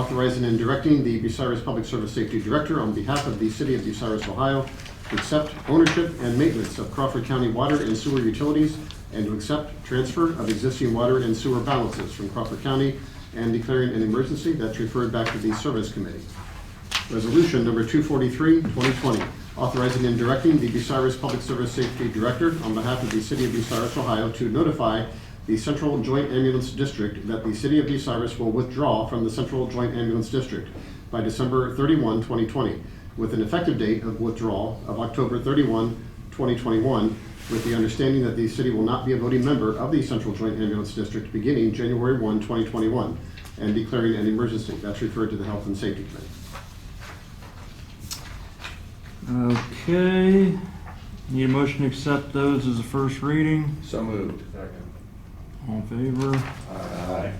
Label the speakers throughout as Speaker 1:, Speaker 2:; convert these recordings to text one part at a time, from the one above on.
Speaker 1: authorizing and directing the Bucyrus Public Service Safety Director on behalf of the City of Bucyrus, Ohio, to accept ownership and maintenance of Crawford County water and sewer utilities and to accept transfer of existing water and sewer balances from Crawford County and declaring an emergency that's referred back to the Service Committee. Resolution number 243, 2020, authorizing and directing the Bucyrus Public Service Safety Director on behalf of the City of Bucyrus, Ohio, to notify the Central Joint Ambulance District that the City of Bucyrus will withdraw from the Central Joint Ambulance District by December 31, 2020, with an effective date of withdrawal of October 31, 2021, with the understanding that the city will not be a voting member of the Central Joint Ambulance District beginning January 1, 2021, and declaring an emergency. That's referred to the Health and Safety Committee.
Speaker 2: Okay, need a motion to accept those as a first reading.
Speaker 3: So moved.
Speaker 2: All in favor?
Speaker 3: Aye.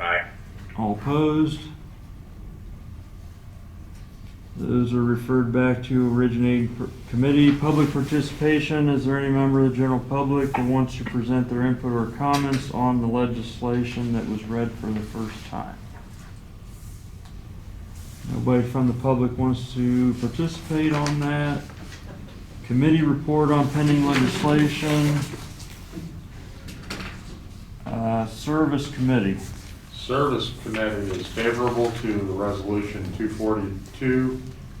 Speaker 4: Aye.
Speaker 2: All opposed? Those are referred back to originating per- committee. Public participation, is there any member of the general public that wants to present their input or comments on the legislation that was read for the first time? Nobody from the public wants to participate on that. Committee report on pending legislation. Uh, Service committee.
Speaker 5: Service Committee is favorable to the Resolution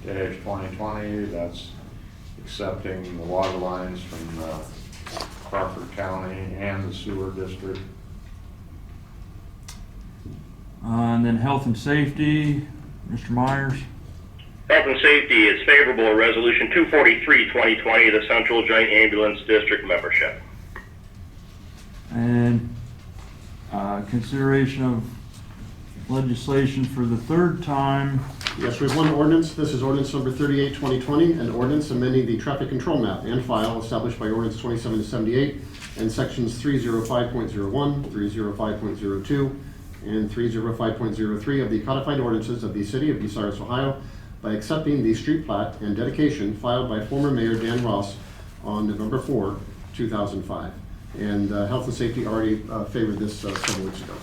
Speaker 5: 242-2020. That's accepting the water lines from uh, Crawford County and the sewer district.
Speaker 2: Uh, And then health and safety, Mr. Myers.
Speaker 4: Health and Safety is favorable to Resolution 243, 2020, the Central Joint Ambulance District membership.
Speaker 2: And uh, consideration of legislation for the third time.
Speaker 1: Yes, we have one ordinance. This is ordinance number 38, 2020, an ordinance amending the traffic control map and file established by ordinance 2778 and sections 305.01, 305.02, and 305.03 of the codified ordinances of the city of Bucyrus, Ohio, by accepting the street plat and dedication filed by former Mayor Dan Ross on November 4, 2005. And uh, Health and Safety already uh, favored this uh, several weeks ago.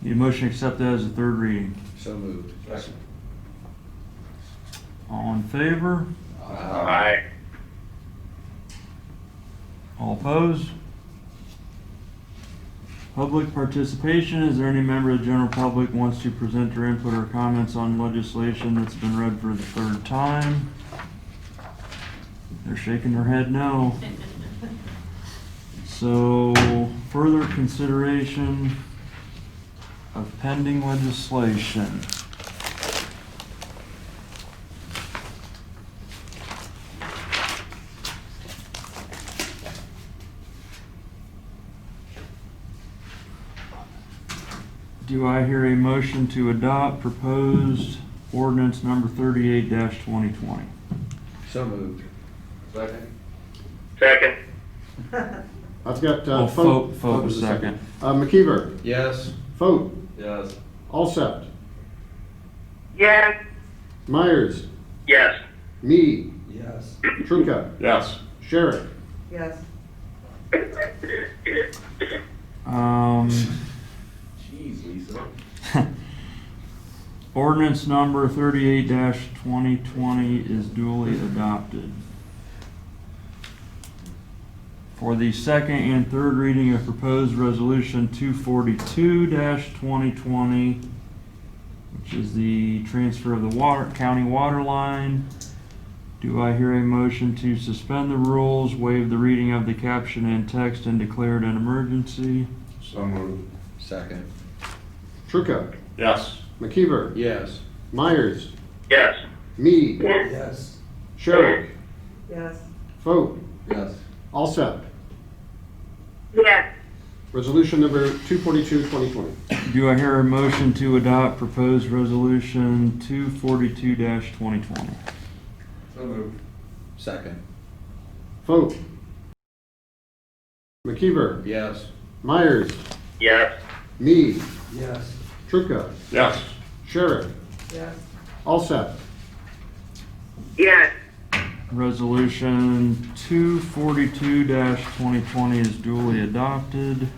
Speaker 2: Need a motion to accept that as a third reading.
Speaker 3: So moved.
Speaker 2: All in favor?
Speaker 4: Aye.
Speaker 2: All opposed? Public participation, is there any member of the general public wants to present their input or comments on legislation that's been read for the third time? They're shaking their head no. So, further consideration of pending legislation. Do I hear a motion to adopt proposed ordinance number thirty-eight twenty twenty?
Speaker 3: So moved. Second.
Speaker 4: Second.
Speaker 1: I've got.
Speaker 2: Oh,
Speaker 1: uh,
Speaker 2: Foat-
Speaker 1: Foat.
Speaker 2: Foat was second.
Speaker 1: Uh, McKeever,
Speaker 3: Yes.
Speaker 1: Foat,
Speaker 3: Yes.
Speaker 1: Alsept,
Speaker 4: Yes.
Speaker 1: Myers,
Speaker 4: Yes.
Speaker 1: me,
Speaker 3: Yes.
Speaker 1: Truca,
Speaker 5: Yes.
Speaker 1: Sherrick.
Speaker 6: Yes.
Speaker 2: Um,
Speaker 3: Jeez, Lisa.
Speaker 2: ordinance number thirty-eight twenty twenty is duly adopted. For the second and third reading of proposed resolution two forty-two twenty twenty, which is the transfer of the water, county water line, do I hear a motion to suspend the rules, waive the reading of the caption and text, and declare it an emergency?
Speaker 5: So moved.
Speaker 3: Second.
Speaker 1: Truca,
Speaker 5: Yes.
Speaker 1: McKeever,
Speaker 3: Yes.
Speaker 1: Myers,
Speaker 4: Yes.
Speaker 1: me,
Speaker 3: Yes.
Speaker 1: Sherrick,
Speaker 6: Yes.
Speaker 1: Foat,
Speaker 3: Yes.
Speaker 1: Alsept.
Speaker 4: Yes.
Speaker 1: Resolution number 242, 2020.
Speaker 2: Do I hear a motion to adopt proposed resolution two forty-two twenty twenty?
Speaker 3: So moved. Second.
Speaker 1: Foat, McKeever,
Speaker 3: Yes.
Speaker 1: Myers,
Speaker 4: Yes.
Speaker 1: me,
Speaker 3: Yes.
Speaker 1: Truca,
Speaker 5: Yes.
Speaker 1: Sherrick,
Speaker 6: Yes.
Speaker 1: Alsept.
Speaker 4: Yes.
Speaker 2: Resolution two forty-two twenty twenty is duly adopted.